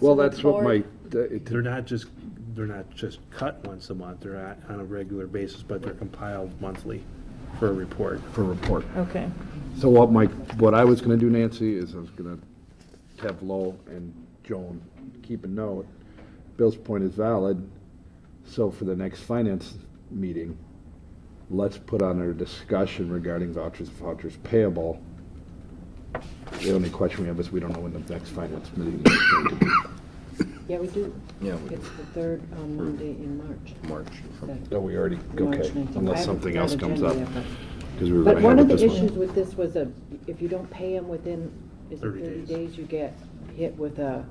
Well, that's what my, They're not just, they're not just cut once a month, they're at- on a regular basis, but they're compiled monthly for a report. for report. Okay, So what my, what I was gonna do, Nancy, is I was gonna have Lowell and Joan keep a note. Bill's point is valid, so for the next finance meeting, let's put on our discussion regarding vouchers, vouchers payable. The only question we have is we don't know when the next finance meeting is going to be. Yeah, we do. Yeah, we do. It's the third on Monday in March. March. That- Oh, we already, March okay, 19th. I unless haven't something got else comes up. agenda yet, Because we were But but gonna one have of it the this issues one. with this was a, if you don't pay them within, is it 30 thirty days. days, you get hit with a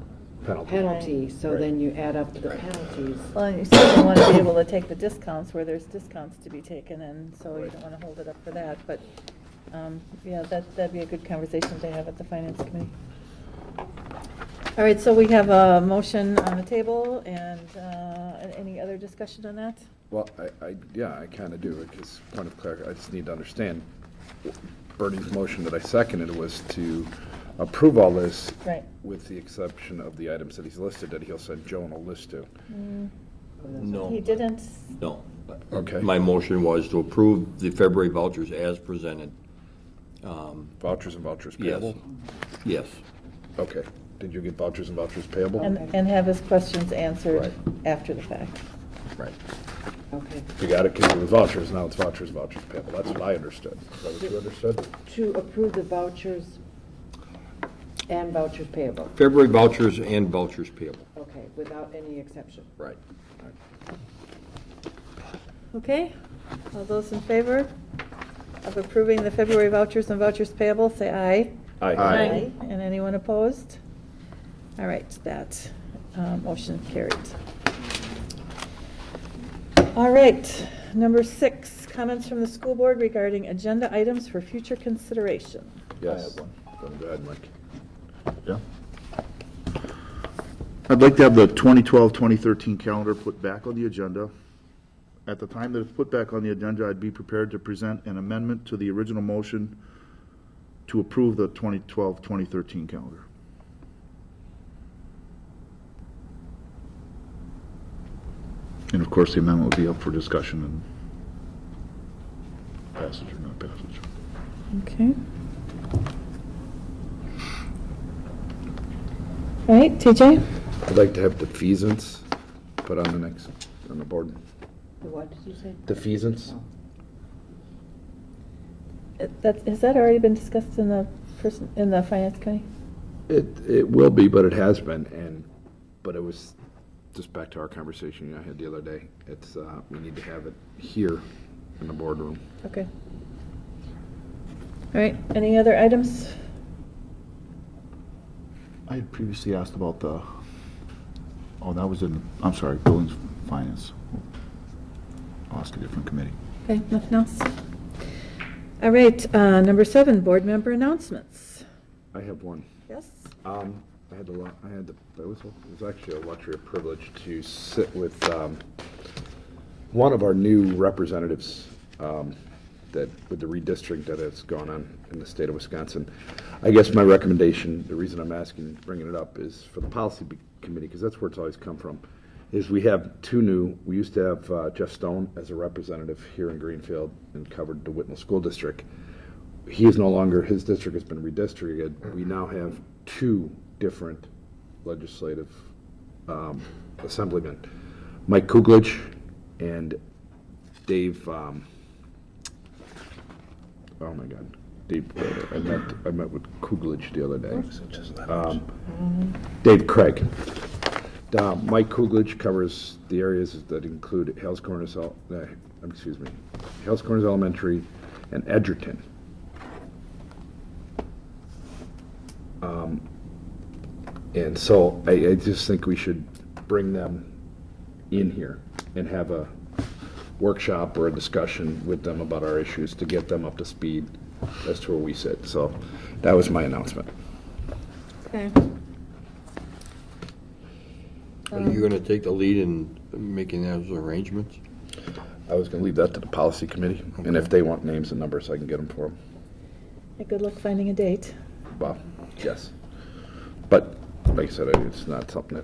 Penalty. penalty, so Right. then you add up the penalties. well, and you certainly want to be able to take the discounts where there's discounts to be taken, and so you don't want to hold it up for that, but, um, yeah, that, that'd be a good conversation to have at the finance committee. All right, so we have a motion on the table, and, uh, and any other discussion on that? Well, I, I, yeah, I kind of do, because point of clarity, I just need to understand. Bernie's motion that I seconded was to approve all this Right. with the exception of the items that he's listed, that he'll send Joan a list to. He No, didn't, no. Okay. My motion was to approve the February vouchers as presented. Um, Vouchers and vouchers Yes. payable? Yes. Okay. Did you get vouchers and vouchers payable? and, and have his questions answered Right. after the fact. Right. Okay. You got it, because it was vouchers, now it's vouchers, vouchers payable. That's what I understood. Is that what you understood? To approve the vouchers and vouchers payable, February vouchers and vouchers payable. okay, without any exception. Right. Okay, all those in favor of approving the February vouchers and vouchers payable, say aye. Aye. And anyone opposed? All right, that uh, motion carried. All right, number six, comments from the school board regarding agenda items for future consideration. Yes. Go ahead, Mike. Yeah. I'd like to have the 2012, 2013 calendar put back on the agenda. At the time that it's put back on the agenda, I'd be prepared to present an amendment to the original motion to approve the 2012, 2013 calendar. And of course, the amendment would be up for discussion and passage or not passage. Okay. All right, TJ? I'd like to have defeasance put on the next, on the board. The What did you say? Defeasance? That, has that already been discussed in the person, in the finance committee? It, it will be, but it has been, and, but it was, just back to our conversation I had the other day, it's, uh, we need to have it here in the boardroom. Okay. All right, any other items? I had previously asked about the, oh, that was in, I'm sorry, Buildings Finance. I'll ask a different committee. Okay, nothing else? All right, uh, number seven, board member announcements. I have one. Yes? Um, I had the, lu- I had the, it was, it was actually a luxury of privilege to sit with, um, one of our new representatives, um, that, with the redistrict that has gone on in the state of Wisconsin. I guess my recommendation, the reason I'm asking, bringing it up, is for the policy be- committee, because that's where it's always come from, is we have two new, we used to have uh, Jeff Stone as a representative here in Greenfield and covered the Whitnall School District he is no longer, his district has been redistricted. We now have two different legislative um, assemblymen, Mike Kuglich and Dave, um, oh my God, Dave, I met, I met with Kuglich the other day. Um, Dave Craig. Uh, Mike Kuglich covers the areas that include Hales Corners, El- uh, excuse me, Hales Corners Elementary and Edgerton. Um, And so I, I just think we should bring them in here and have a workshop or a discussion with them about our issues to get them up to speed as to where we sit. So that was my announcement. Okay. Um, Are you going to take the lead in making those arrangements? I was going to leave that to the policy committee, and if they want names and numbers, I can get them for them. Hey, Good luck finding a date. Well, yes. But like I said, it's not something that